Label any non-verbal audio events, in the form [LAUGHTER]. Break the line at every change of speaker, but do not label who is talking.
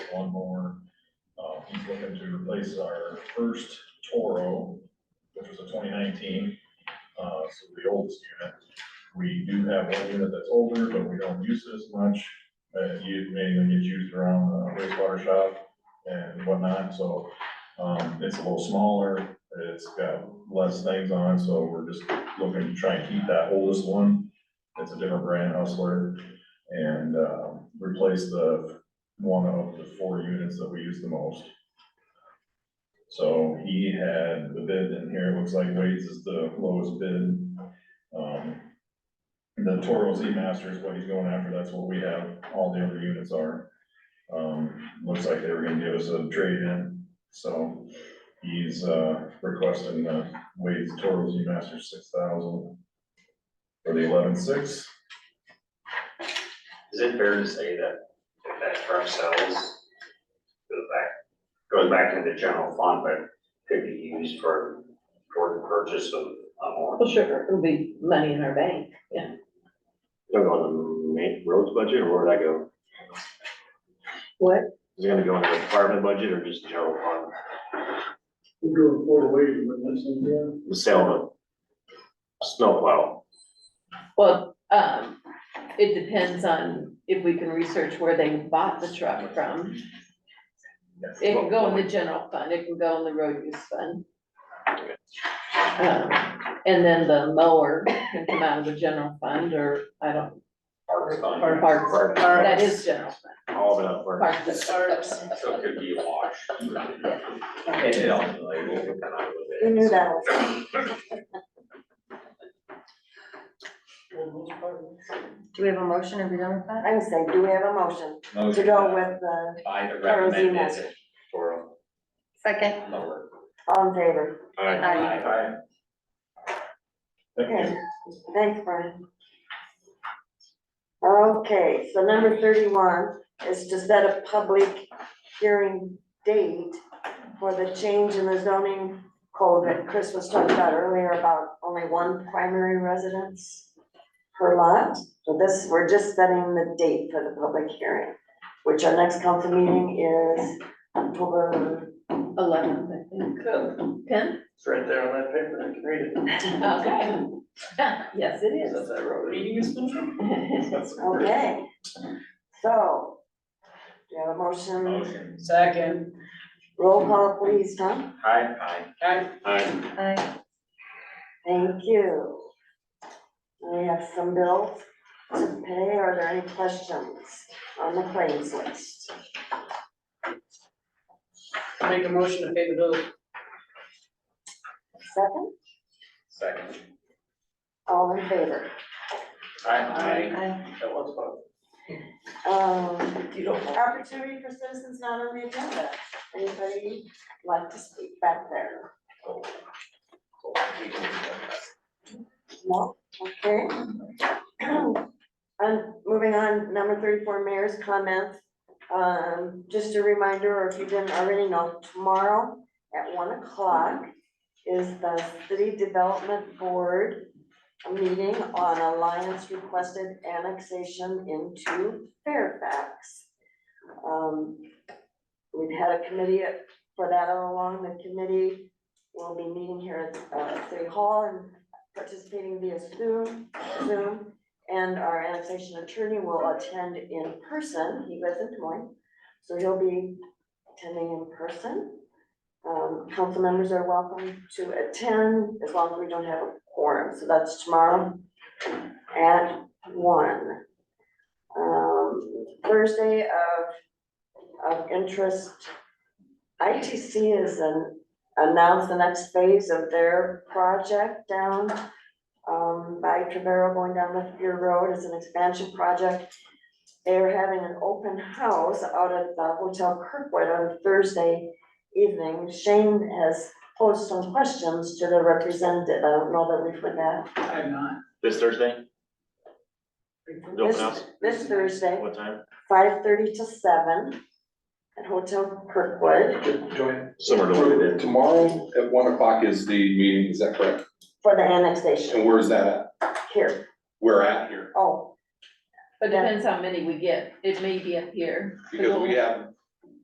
lawnmower. Uh, he's looking to replace our first Toro, which was a twenty nineteen, uh, so the oldest unit. We do have one unit that's older, but we don't use it as much, uh, it mainly gets used around uh, wastewater shop and whatnot, so, um, it's a little smaller, it's got less things on, it, so we're just looking to try and keep that oldest one. It's a different brand hustler and, uh, replace the one of the four units that we use the most. So he had the bid in here, it looks like Wade's is the lowest bid. Um, The Toro Z Master is what he's going after, that's what we have, all the other units are. Um, looks like they were gonna give us a trade-in, so he's, uh, requesting, uh, Wade's Toro Z Master six thousand for the eleven-six.
Is it fair to say that if that truck sells, goes back, goes back into the general fund, but could be used for, for the purchase of a more,
Well, sure, it'll be money in our bank, yeah.
Gonna go on the main roads budget, or where would I go?
What?
Is it gonna go in the department budget or just general fund?
We go four ways, wouldn't it, Cynthia?
The sale of snowplow,
Well, um, it depends on if we can research where they bought the truck from. It can go in the general fund, it can go in the road use fund. Um, And then the mower can come out of the general fund, or I don't,
park fund?
or parks,
Park.
that is general fund,
all of it up for.
parks. and parks.
So it could be a wash. And it ultimately will come out of it.
We knew that was. Do we have a motion? Have we done with that? I would say, do we have a motion to go with the
By the
Or Z
recommended
master.
for
second,
a lower.
all in favor?
Alright,
Aye.
Thank you.
Okay, thanks, Brian. Okay, so number thirty-one is to set a public hearing date for the change in the zoning code that Chris was talking about earlier about only one primary residence per lot. So this, we're just setting the date for the public hearing, which our next council meeting is October,
Eleven, I think. Ten?
It's right there on that paper, I can read it.
Okay. [LAUGHS] Yes, it is. [LAUGHS]
That's that road.
okay. So, do you have a motion?
Motion.
Second.
Roll call, please, Tom.
Aye, aye.
alright,
Aye. Thank you. We have some bills to pay. Are there any questions on the claims list?
Make a motion to pay the bill.
Second,
Second.
all in favor?
Aye.
That was fun.
Um, opportunity for citizens not on the agenda. Anybody like to speak back there? No, okay. And moving on, number thirty-four, mayor's comments. Um, just a reminder, or if you didn't already know, tomorrow at one o'clock is the city development board meeting on Alliance requested annexation into Fairfax. Um, we've had a committee for that all along, the committee will be meeting here at, uh, City Hall and participating via Zoom, Zoom. And our annexation attorney will attend in person, he lives in Des Moines, so he'll be attending in person. Um, council members are welcome to attend as long as we don't have a quorum, so that's tomorrow at one. Um, Thursday of, of interest, ITC has an- announced the next phase of their project down um, by Trevero going down Lithgow Road, it's an expansion project. They're having an open house out at the Hotel Kirkwood on Thursday evening, Shane has posed some questions to the representative, I don't know that we've had
I'm not.
this Thursday,
that.
The open house?
This this Thursday,
what time?
five thirty to seven at Hotel Kirkwood
Joanne,
Somewhere to look at it.
tomorrow at one o'clock is the meeting, is that correct?
for the
And
annexation
where is that at?
here,
We're at here,
oh,
But depends how many we get, it may be up here.
because we have